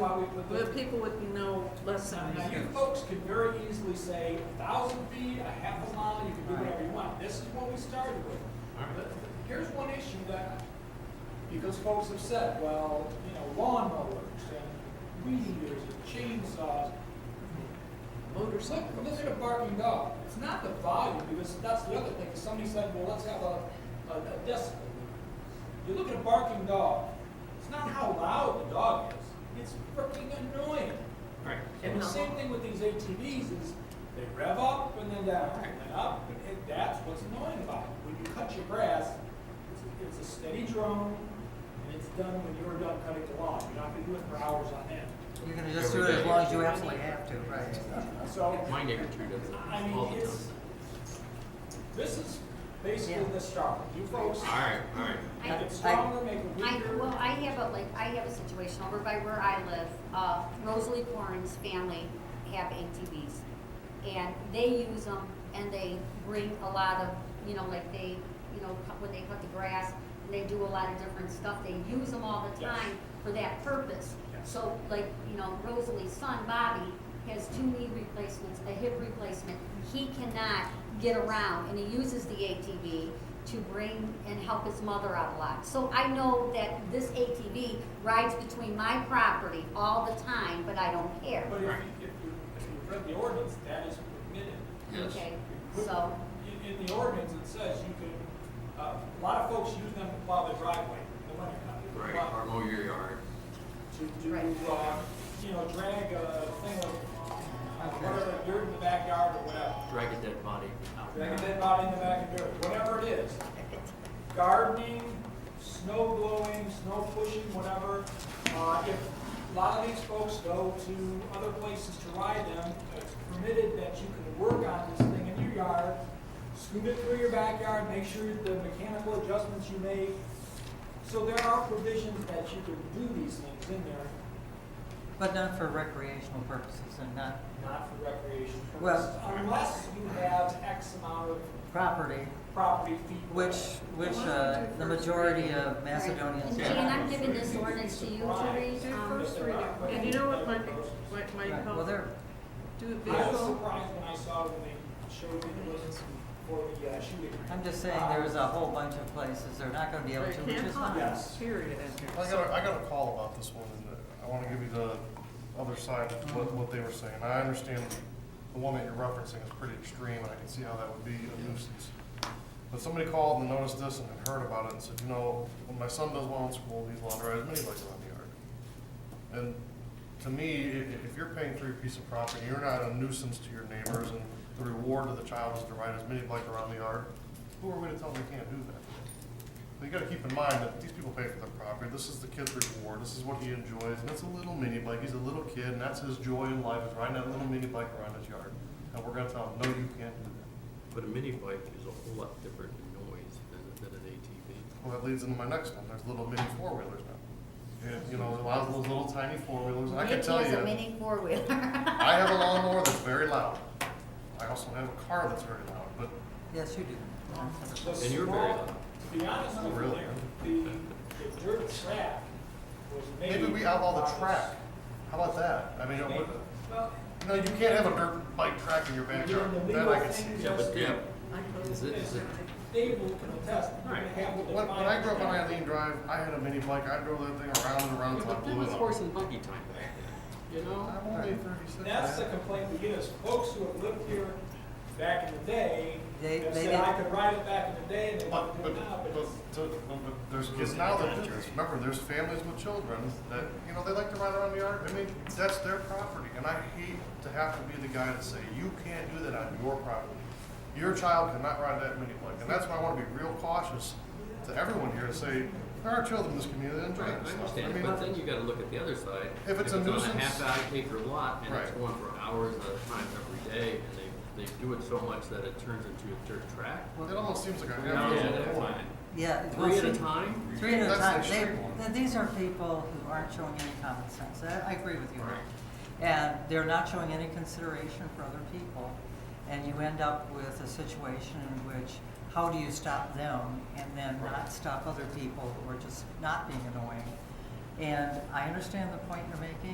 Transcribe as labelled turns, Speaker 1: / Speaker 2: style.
Speaker 1: probably, but the,
Speaker 2: But people would know less than
Speaker 1: now, you
Speaker 2: that.
Speaker 1: folks can very easily say a thousand feet, a half a mile, you can do whatever you want. This is what we started with. But Here's one issue that, because folks have said, well, you know, lawnmowers and weed eaters and chainsaws. Look,
Speaker 2: Motorcycle.
Speaker 1: look at a barking dog. It's not the volume, because that's the other thing. Somebody said, well, let's have a, a a decibel. You look at a barking dog, it's not how loud the dog is. It's freaking annoying.
Speaker 3: Right.
Speaker 1: And the same thing with these ATVs is they rev up and then down, and then up, and that's what's annoying about it. When you cut your grass, it's, it's a steady drone, and it's done when you're done cutting the lawn. You're not gonna do it for hours on end.
Speaker 4: You're gonna just do it as long as you absolutely have to, right?
Speaker 1: So,
Speaker 3: My neighbor too does
Speaker 1: I
Speaker 3: that all
Speaker 1: mean,
Speaker 3: the time.
Speaker 1: it's, this is basically
Speaker 4: Yeah.
Speaker 1: the start. You folks,
Speaker 3: All right, all right.
Speaker 1: make
Speaker 5: I,
Speaker 1: it stronger, make it
Speaker 5: I,
Speaker 1: weaker.
Speaker 5: well, I have a, like, I have a situation over by where I live, uh, Rosalie Corrin's family have ATVs. And they use them and they bring a lot of, you know, like they, you know, cut- when they cut the grass, and they do a lot of different stuff, they use them all the
Speaker 1: Yes.
Speaker 5: time for that purpose.
Speaker 1: Yes.
Speaker 5: So like, you know, Rosalie's son Bobby has two knee replacements, a hip replacement. He cannot get around and he uses the ATV to bring and help his mother out a lot. So I know that this ATV rides between my property all the time, but I don't care.
Speaker 1: But if, you- if you, if you read the ordinance, that is permitted.
Speaker 3: Yes.
Speaker 5: Okay, so,
Speaker 1: In, in the ordinance, it says you can, uh, a lot of folks use them to plow their driveway, the winter time. to
Speaker 3: Right,
Speaker 1: plow-
Speaker 3: or mow your yard.
Speaker 1: To, to,
Speaker 5: Right.
Speaker 1: uh, you know, drag a thing of, whatever, dirt in the backyard or whatever.
Speaker 3: Drag a dead body out.
Speaker 1: Drag a dead body in the back of dirt, whatever it is. Gardening, snow blowing, snow pushing, whatever. Uh, if a lot of these folks go to other places to ride them, it's permitted that you can work on this thing in your yard, scoot it through your backyard, make sure the mechanical adjustments you make. So there are provisions that you can do these things in there,
Speaker 4: But not for recreational purposes and not
Speaker 1: not for recreation
Speaker 4: Well-
Speaker 1: purposes, unless you have X amount of
Speaker 4: property,
Speaker 1: property feet.
Speaker 4: which, which, uh, the majority of
Speaker 5: and
Speaker 4: Macedonians
Speaker 5: Jan,
Speaker 4: have.
Speaker 5: I'm giving this ordinance to you to read, um,
Speaker 2: And you know what might, be- might, might
Speaker 4: Right,
Speaker 2: help?
Speaker 4: Well, they're,
Speaker 2: Do a
Speaker 1: I was
Speaker 2: visual.
Speaker 1: surprised when I saw when they showed me the list for the uh, shooting. range.
Speaker 4: I'm just saying there is a whole bunch of places they're not gonna be able
Speaker 2: They
Speaker 4: to, which
Speaker 2: can't
Speaker 4: is fine.
Speaker 2: hide,
Speaker 1: Yes.
Speaker 2: period.
Speaker 6: I got, a, I got a call about this one, and I wanna give you the other side of what, what they were saying. I understand the one that you're referencing is pretty extreme, and I can see how that would be a nuisance. But somebody called and noticed this and had heard about it and said, you know, when my son does well in school, he's allowed to ride as many bikes around the yard. And to me, if, if you're paying for your piece of property, you're not a nuisance to your neighbors, and the reward to the child is to ride as many bikes around the yard, who are we to tell them they can't do that? But you gotta keep in mind that these people pay for their property, this is the kid's reward, this is what he enjoys, and it's a little mini bike, he's a little kid, and that's his joy in life, is riding that little mini bike around his yard. And we're gonna tell him, no, you can't do that.
Speaker 3: But a mini bike is a whole lot different noise than, than an ATV.
Speaker 6: Well, that leads into my next one, there's little mini four-wheelers now. And, you know, a lot of those little tiny four-wheelers, and I can
Speaker 5: Nikki
Speaker 6: tell
Speaker 5: is a
Speaker 6: you,
Speaker 5: mini four-wheeler.
Speaker 6: I have a lawnmower that's very loud. I also have a car that's very loud, but
Speaker 4: Yes, you do.
Speaker 1: The
Speaker 3: And you're very
Speaker 1: small-
Speaker 3: loud.
Speaker 1: To be honest with
Speaker 6: Really?
Speaker 1: you, the, the dirt track was made.
Speaker 6: maybe we outlaw the
Speaker 1: by-
Speaker 6: track. How about that? I mean, it
Speaker 1: made-
Speaker 6: would-
Speaker 1: Well,
Speaker 6: no, you can't have a dirt bike track in your backyard,
Speaker 1: Doing the
Speaker 6: that
Speaker 1: legal
Speaker 6: I can see.
Speaker 1: thing.
Speaker 3: Yeah, but
Speaker 1: Yeah.
Speaker 3: yeah, is it, is it,
Speaker 1: Dave will contest, you're gonna have to
Speaker 6: When, when I grew up on
Speaker 1: define-
Speaker 6: Eileen Drive, I had a mini bike, I drove that thing around and around until I
Speaker 3: but that
Speaker 6: blew it
Speaker 3: was horse
Speaker 6: up.
Speaker 3: and buggy time back then, you know?
Speaker 6: I'm only thirty-six.
Speaker 1: That's the
Speaker 6: man.
Speaker 1: complaint we get is folks who have lived here back in the day,
Speaker 4: They-
Speaker 1: have
Speaker 4: they
Speaker 1: said, I
Speaker 4: didn't-
Speaker 1: could ride it back in the day, and they want to do
Speaker 6: But, but,
Speaker 1: it now, but
Speaker 6: but,
Speaker 1: it's-
Speaker 6: to- but- but there's kids now that, do this. remember, there's families with children that, you know, they like to ride around the yard, I mean, that's their property, and I hate to have to be the guy to say, you can't do that on your property. Your child cannot ride that mini bike, and that's why I wanna be real cautious to everyone here to say, there are children in this community that enjoy
Speaker 3: Right, I
Speaker 6: this stuff. I
Speaker 3: understand,
Speaker 6: mean,
Speaker 3: but then you gotta look at the other side.
Speaker 6: If it's a
Speaker 3: on a
Speaker 6: nuisance-
Speaker 3: half acre lot and it's
Speaker 6: Right.
Speaker 3: going for hours at a time every day and they, they do it so much that it turns into a dirt track.
Speaker 6: It almost seems like I
Speaker 3: Yeah,
Speaker 6: have to.
Speaker 3: that's fine.
Speaker 4: Yeah.
Speaker 3: Three at a
Speaker 4: well, see,
Speaker 3: time?
Speaker 4: Three at a
Speaker 6: That's the
Speaker 4: time. They,
Speaker 6: extreme one.
Speaker 4: th- these are people who aren't showing any common sense. I, I agree with you.
Speaker 3: Right.
Speaker 4: And they're not showing any consideration for other people. And you end up with a situation in which, how do you stop them and then not stop other people who are just not being annoying? And I understand the point you're making.